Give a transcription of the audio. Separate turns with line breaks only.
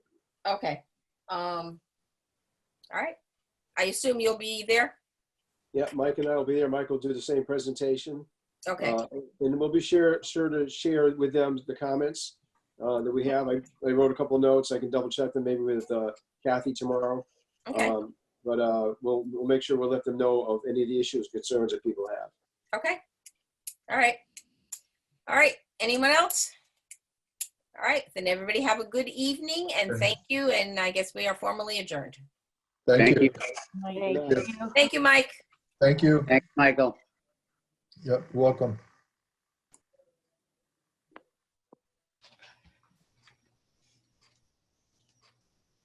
Okay. Um, all right. I assume you'll be there?
Yeah, Mike and I will be there. Mike will do the same presentation.
Okay,
Uh, And we'll be sure, sure to share with them the comments uh, that we have. I I wrote a couple of notes. I can double check them maybe with uh, Kathy tomorrow.
okay,
Um, But uh, we'll, we'll make sure we'll let them know of any of the issues, concerns that people have.
okay. All right. All right. Anyone else? All right, then everybody have a good evening and thank you. And I guess we are formally adjourned.
Thank you.
Thank
Thank
you.
Thank you, Mike.
Thank you.
Thanks, Michael.
Yep, welcome.